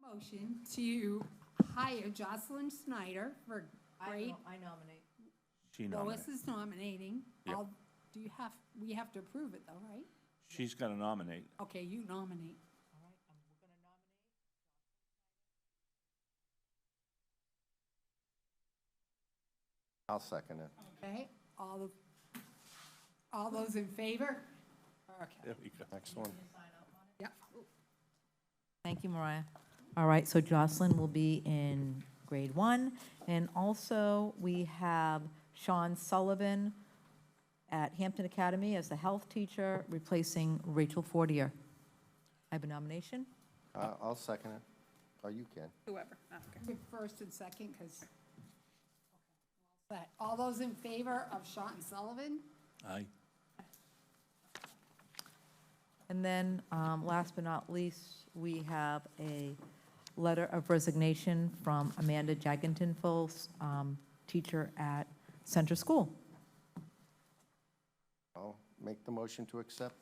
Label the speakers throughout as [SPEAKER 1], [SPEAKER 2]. [SPEAKER 1] Motion to hire Jocelyn Snyder for grade,
[SPEAKER 2] I nominate.
[SPEAKER 3] She nominated.
[SPEAKER 1] Lois is nominating.
[SPEAKER 3] Yep.
[SPEAKER 1] I'll- Do you have, we have to approve it though, right?
[SPEAKER 3] She's gonna nominate.
[SPEAKER 1] Okay, you nominate.
[SPEAKER 2] All right, I'm, we're gonna nominate.
[SPEAKER 4] I'll second it.
[SPEAKER 1] Okay, all the, all those in favor? Okay,
[SPEAKER 3] There we go.
[SPEAKER 4] Next one.
[SPEAKER 1] yep.
[SPEAKER 2] Thank you, Mariah. All right, so Jocelyn will be in grade one. And also, we have Sean Sullivan at Hampton Academy as the health teacher, replacing Rachel Fortier. I have a nomination.
[SPEAKER 4] Uh, I'll second it. Oh, you can.
[SPEAKER 5] Whoever, okay.
[SPEAKER 1] Give First and second, because. But all those in favor of Sean Sullivan?
[SPEAKER 3] Aye.
[SPEAKER 2] And then, um, last but not least, we have a letter of resignation from Amanda Jagentinfels, um, teacher at Center School.
[SPEAKER 4] I'll make the motion to accept.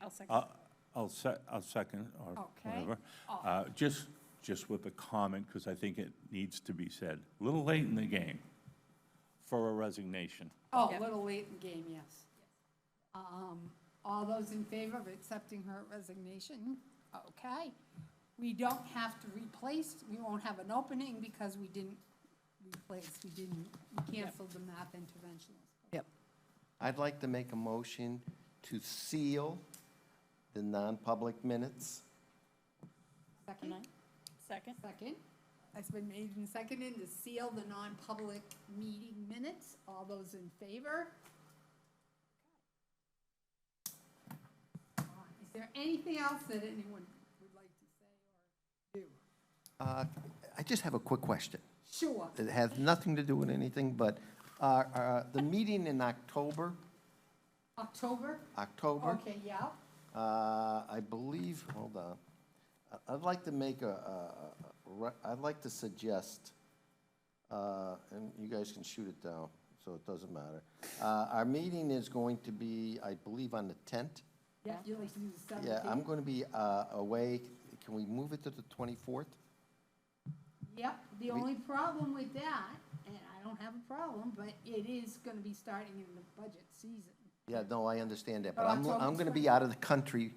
[SPEAKER 5] I'll second.
[SPEAKER 3] I'll, I'll se- I'll second or
[SPEAKER 1] Okay.
[SPEAKER 3] whatever. Uh, just, just with a comment, because I think it needs to be said. A Little late in the game for a resignation.
[SPEAKER 1] Oh, a
[SPEAKER 5] Yep.
[SPEAKER 1] little late in the game, yes. Um, All those in favor of accepting her resignation? Okay. We don't have to replace, we won't have an opening because we didn't replace, we didn't, we canceled the math interventionist.
[SPEAKER 2] Yep.
[SPEAKER 4] I'd like to make a motion to seal the non-public minutes.
[SPEAKER 1] Second?
[SPEAKER 5] Second?
[SPEAKER 1] Second. It's been made and seconded to seal the non-public meeting minutes. All those in favor? Is there anything else that anyone would like to say or do?
[SPEAKER 4] Uh, I just have a quick question.
[SPEAKER 1] Sure.
[SPEAKER 4] It has nothing to do with anything, but uh, uh, the meeting in October,
[SPEAKER 1] October?
[SPEAKER 4] October,
[SPEAKER 1] Okay, yeah.
[SPEAKER 4] uh, I believe, hold on. I- I'd like to make a- a, a- a re- I'd like to suggest, uh, and you guys can shoot it down, so it doesn't matter. Uh, Our meeting is going to be, I believe, on the 10th.
[SPEAKER 1] Yeah, you like to do the
[SPEAKER 4] Yeah, I'm
[SPEAKER 1] seventeenth?
[SPEAKER 4] going to be uh, away. Can we move it to the 24th?
[SPEAKER 1] Yep, the only problem with that, and I don't have a problem, but it is gonna be starting in the budget season.
[SPEAKER 4] Yeah, no, I understand that, but
[SPEAKER 1] Oh,
[SPEAKER 4] I'm,
[SPEAKER 1] October
[SPEAKER 4] I'm going to
[SPEAKER 1] 20th.
[SPEAKER 4] be out of the country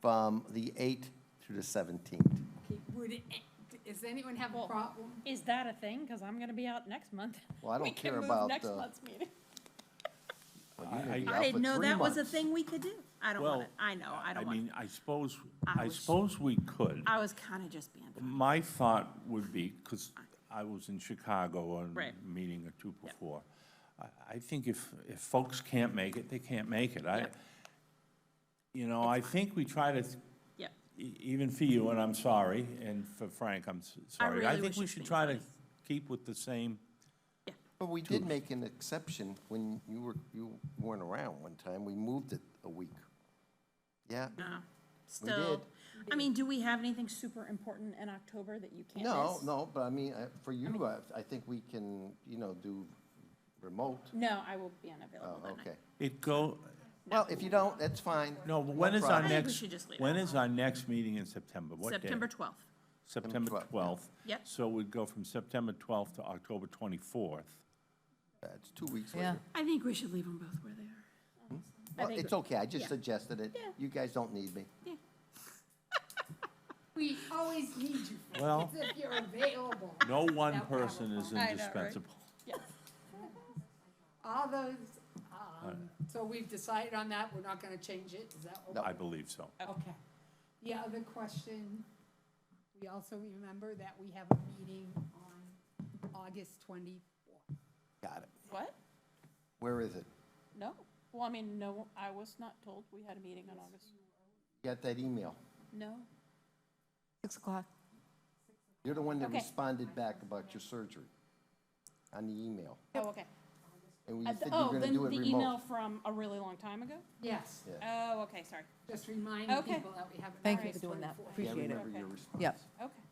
[SPEAKER 4] from the 8th through the 17th.
[SPEAKER 1] Okay, Would, it- eh, does anyone have a
[SPEAKER 5] Well,
[SPEAKER 1] problem?
[SPEAKER 5] Is that a thing? Because I'm going to be out next month.
[SPEAKER 4] Well, I
[SPEAKER 5] We
[SPEAKER 4] don't
[SPEAKER 5] can
[SPEAKER 4] care
[SPEAKER 5] move
[SPEAKER 4] about
[SPEAKER 5] Next
[SPEAKER 4] the-
[SPEAKER 5] month's meeting.
[SPEAKER 4] Well, you're gonna
[SPEAKER 3] I-
[SPEAKER 4] be
[SPEAKER 3] I
[SPEAKER 4] out
[SPEAKER 5] I didn't
[SPEAKER 4] for
[SPEAKER 5] know
[SPEAKER 4] three
[SPEAKER 5] that was a
[SPEAKER 4] months.
[SPEAKER 5] thing we could do. I don't want
[SPEAKER 3] Well,
[SPEAKER 5] it. I know, I
[SPEAKER 3] I
[SPEAKER 5] don't want it.
[SPEAKER 3] mean, I suppose,
[SPEAKER 5] I
[SPEAKER 3] I
[SPEAKER 5] was-
[SPEAKER 3] suppose we could.
[SPEAKER 5] I was kind of just being,
[SPEAKER 4] Mm-hmm.
[SPEAKER 5] funny.
[SPEAKER 3] My thought would be, because I was in Chicago on a
[SPEAKER 5] Right.
[SPEAKER 3] meeting or two before. I, I think if, if folks can't make it, they can't make it. I,
[SPEAKER 5] Yep.
[SPEAKER 3] you know, I think we try to
[SPEAKER 5] yeah.
[SPEAKER 3] E- Even for you, and I'm sorry, and for Frank, I'm s- sorry. I
[SPEAKER 5] really
[SPEAKER 3] think
[SPEAKER 5] wish
[SPEAKER 3] we
[SPEAKER 5] it's
[SPEAKER 3] should
[SPEAKER 5] been
[SPEAKER 3] try to
[SPEAKER 5] twice.
[SPEAKER 3] keep with the same,
[SPEAKER 4] But we did make an exception when you were, you weren't around one time. We moved it a week. Yeah?
[SPEAKER 5] No. Still,
[SPEAKER 4] did.
[SPEAKER 5] I mean, do we have anything super important in October that you can't
[SPEAKER 4] No,
[SPEAKER 5] miss?
[SPEAKER 4] no, but I mean, uh, for you, I, I think we can, you know, do remote.
[SPEAKER 5] No, I will be unavailable
[SPEAKER 4] Oh,
[SPEAKER 5] that night.
[SPEAKER 4] okay.
[SPEAKER 3] it go,
[SPEAKER 4] Well, if you don't, that's fine.
[SPEAKER 3] no, but when is our
[SPEAKER 4] problem.
[SPEAKER 5] I think we
[SPEAKER 3] next?
[SPEAKER 5] should just leave it
[SPEAKER 3] When is our next meeting in September? What day?
[SPEAKER 5] September 12th.
[SPEAKER 3] September
[SPEAKER 4] 12th, yeah.
[SPEAKER 3] 12th.
[SPEAKER 5] Yep.
[SPEAKER 3] So we'd go from September 12th to October 24th.
[SPEAKER 4] It's two weeks
[SPEAKER 2] Yeah.
[SPEAKER 4] later.
[SPEAKER 5] I think we should leave them both where they are.
[SPEAKER 4] Hmm? Well,
[SPEAKER 5] think-
[SPEAKER 4] it's okay, I just
[SPEAKER 5] yeah.
[SPEAKER 4] suggested it.
[SPEAKER 5] Yeah.
[SPEAKER 4] You guys don't need me.
[SPEAKER 1] We always need you.
[SPEAKER 3] Well-
[SPEAKER 1] It's If you're available.
[SPEAKER 3] No one
[SPEAKER 1] That would have a
[SPEAKER 3] person is
[SPEAKER 1] problem.
[SPEAKER 5] I know, right?
[SPEAKER 3] indispensable.
[SPEAKER 1] All those, um, so we've decided on that, we're not gonna change it, is that okay?
[SPEAKER 3] I believe so.
[SPEAKER 1] Okay. The other question, we also remember that we have a meeting on August twenty-fourth.
[SPEAKER 4] Got it.
[SPEAKER 5] What?
[SPEAKER 4] Where is it?
[SPEAKER 5] No? Well, I mean, no, I was not told we had a meeting on August.
[SPEAKER 4] Got that email?
[SPEAKER 5] No.
[SPEAKER 2] Six o'clock.
[SPEAKER 4] You're the one that
[SPEAKER 5] Okay.
[SPEAKER 4] responded back about your surgery on the email.
[SPEAKER 5] Oh, okay.
[SPEAKER 4] And we
[SPEAKER 5] Uh,
[SPEAKER 4] said you
[SPEAKER 5] th-
[SPEAKER 4] were
[SPEAKER 5] Oh,
[SPEAKER 4] gonna
[SPEAKER 5] then
[SPEAKER 4] do it
[SPEAKER 5] the email
[SPEAKER 4] remote.
[SPEAKER 5] from a really long time ago?
[SPEAKER 1] Yes,
[SPEAKER 4] Yeah.
[SPEAKER 5] Oh, okay, sorry.
[SPEAKER 1] just reminding
[SPEAKER 5] Okay.
[SPEAKER 1] people that we have. an
[SPEAKER 2] Thank you
[SPEAKER 1] August
[SPEAKER 2] for doing that.
[SPEAKER 1] 24th.
[SPEAKER 4] Yeah, I
[SPEAKER 2] Appreciate it.
[SPEAKER 4] remember your response.
[SPEAKER 2] Yep.
[SPEAKER 5] Okay.